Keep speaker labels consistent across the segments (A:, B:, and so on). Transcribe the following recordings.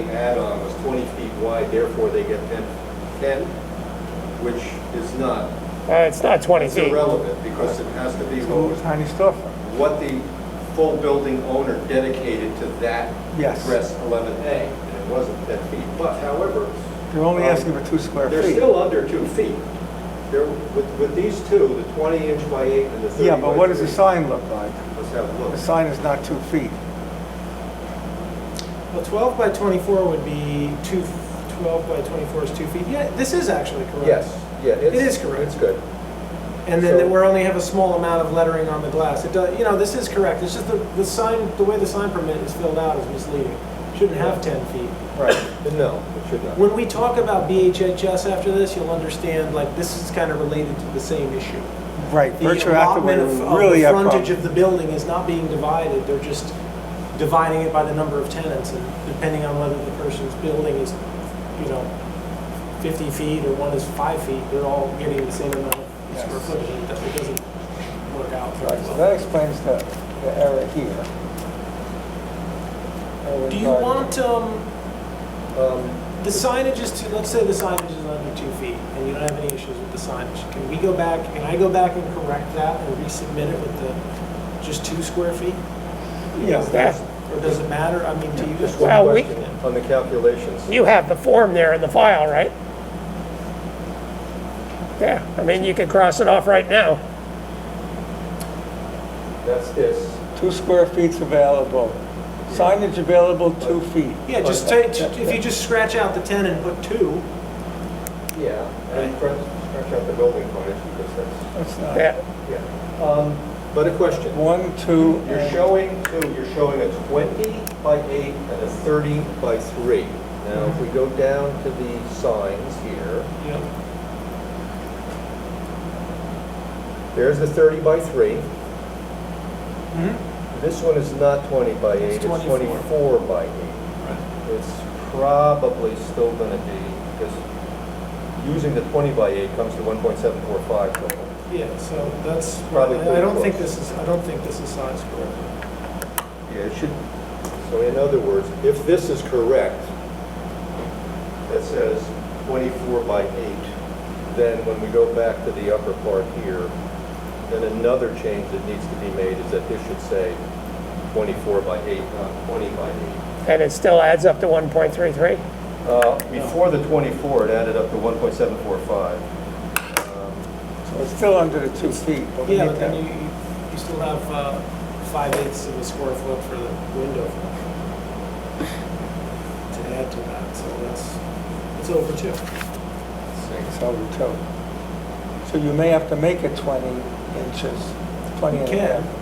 A: The add-on was 20 feet wide, therefore they get 10, 10, which is not,
B: Uh, It's not 20
A: it's
B: feet.
A: irrelevant, because it has to be what
C: Little
A: was-
C: tiny storefront.
A: what the full building owner dedicated to that
C: Yes.
A: address 11A, and it wasn't 10 feet. But however,
C: They're only
A: Um,
C: asking for two square
A: they're
C: feet.
A: still under two feet. They're, with, with these two, the 20 inch by 8 and the 30
C: Yeah, but
A: by
C: what does the
A: 3,
C: sign look like?
A: Let's have a
C: The
A: look.
C: sign is not two feet.
D: Well, 12 by 24 would be two, 12 by 24 is two feet. Yeah, this is actually correct.
A: yeah,
D: It is correct.
A: It's good.
D: And then
A: So-
D: that we're only have a small amount of lettering on the glass. It does, you know, this is correct. It's just the, the sign, the way the sign permit is filled out is misleading. Shouldn't have 10 feet.
A: Right, no, it should not.
D: When we talk about BHHS after this, you'll understand, like, this is kind of related to the same issue.
C: Right,
D: The
C: virtual
D: allotment
C: activator
D: of
C: would
D: of
C: really
D: the
C: a
D: frontage
C: problem.
D: of the building is not being divided. They're just dividing it by the number of tenants, and depending on whether the person's building is, you know, 50 feet or one is five feet, they're all getting the same amount of square
C: Yes.
D: footage. and It doesn't- it doesn't work out
C: Right,
D: very
C: so
D: well.
C: that explains the, the error here. Error
D: Do you
C: regarding-
D: want, um,
A: Um,
D: the signage is too, let's say the signage is under two feet, and you don't have any issues with the signage. Can we go back, can I go back and correct that and resubmit it with the, just two square feet?
C: Yeah,
B: that-
D: Or does it matter? I mean, do you
A: Just
D: just,
A: one
B: Well, we-
A: question on the calculations.
B: You have the form there in the file, right? Yeah, I mean, you could cross it off right now.
A: That's this.
C: Two square feet's available. Signage available, two feet.
D: yeah, just take, if you just scratch out the 10 and put two,
A: Yeah. And scratch scratch out the building frontage because that's,
C: That's not,
B: Yeah,
A: yeah. Um, But a question.
C: one, two,
A: You're
C: and
A: showing, two, you're showing a 20 by 8 and a 30 by 3. Now, if we go down to the signs here,
D: you know,
A: there's the 30 by 3. This one is not 20 by 8, Mm-hmm. it's
D: It's 24.
A: 24 by 8. It's probably still going to be, because using the 20 by 8 comes to 1.745 total.
D: yeah, so that's,
A: Probably
D: I I don't
A: pretty
D: think
A: close.
D: this is, I don't think this is size correct.
A: Yeah, it should. So in other words, if this is correct, that says 24 by 8, then when we go back to the upper part here, then another change that needs to be made is that this should say 24 by 8, not 20 by 8.
B: and it still adds up to 1.33.
A: Uh, Before the 24, it added up to 1.745. Um,
C: so it's still under the two feet. but we
D: Yeah,
C: need
D: but
C: that.
D: then you, you- you still have uh, five eighths of a square foot for the window to add to that, so that's, it's over two.
C: It's over two. So you may have to make it 20 inches, 20 and
D: You
C: a
D: can.
C: half.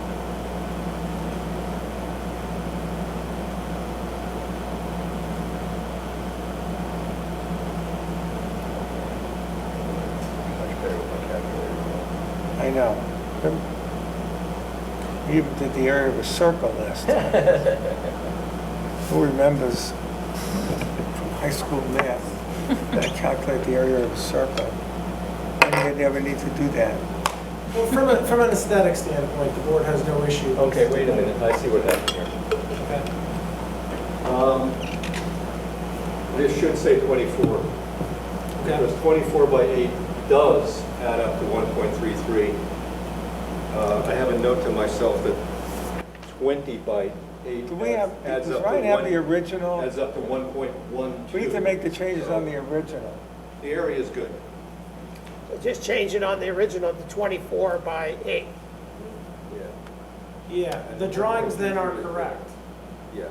A: much better with my calculator.
C: I know. We even did the area of a circle last time. Who remembers from high school math, that I calculate the area of a circle? When did they ever need to do that?
D: Well, from a, from an aesthetic standpoint, the board has no issue. with-
A: Okay, wait a minute, I see what happened here.
D: Okay.
A: Um, This should say 24,
D: Okay.
A: because 24 by 8 does add up to 1.33. Uh, I have a note to myself that 20 by 8
C: Do we have,
A: adds
C: does
A: up to
C: Ryan have the
A: one-
C: original?
A: adds up to 1.12.
C: We need to make the changes on the original.
A: The area is good.
B: Just change it on the original to 24 by 8.
A: Yeah,
D: Yeah, the drawings then are correct.
A: yeah.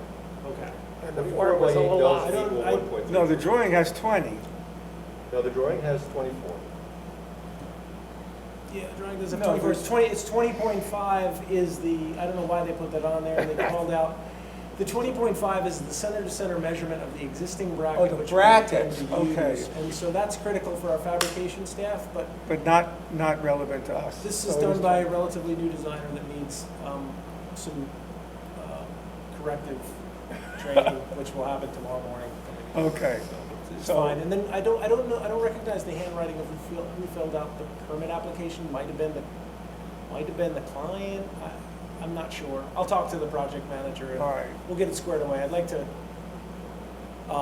D: Okay.
B: And the form was a little
D: I
B: off.
D: don't-
A: Equal
D: I-
A: 1.33.
C: No, the drawing has 20.
A: No, the drawing has 24.
D: Yeah, the drawing doesn't
C: No,
D: have 24,
C: there's-
D: it's 20, it's 20.5 is the, I don't know why they put that on there, they called out, the 20.5 is the center-to-center measurement of the existing bracket.
C: Oh, the
D: which we intend
C: bracket,
D: to
C: okay.
D: use. And so that's critical for our fabrication staff, but
C: But not, not relevant to us.
D: this
C: So
D: is
C: it
D: done by a relatively new designer that needs um, some uh, corrective training, which will happen tomorrow morning.
C: Okay.
D: It's
C: So-
D: fine, and then I don't, I don't know, I don't recognize the handwriting of who filled, who filled out the permit application, might have been the, might have been the client, I, I'm not sure. I'll talk to the project manager
C: All right.
D: and we'll get it squared away. I'd like to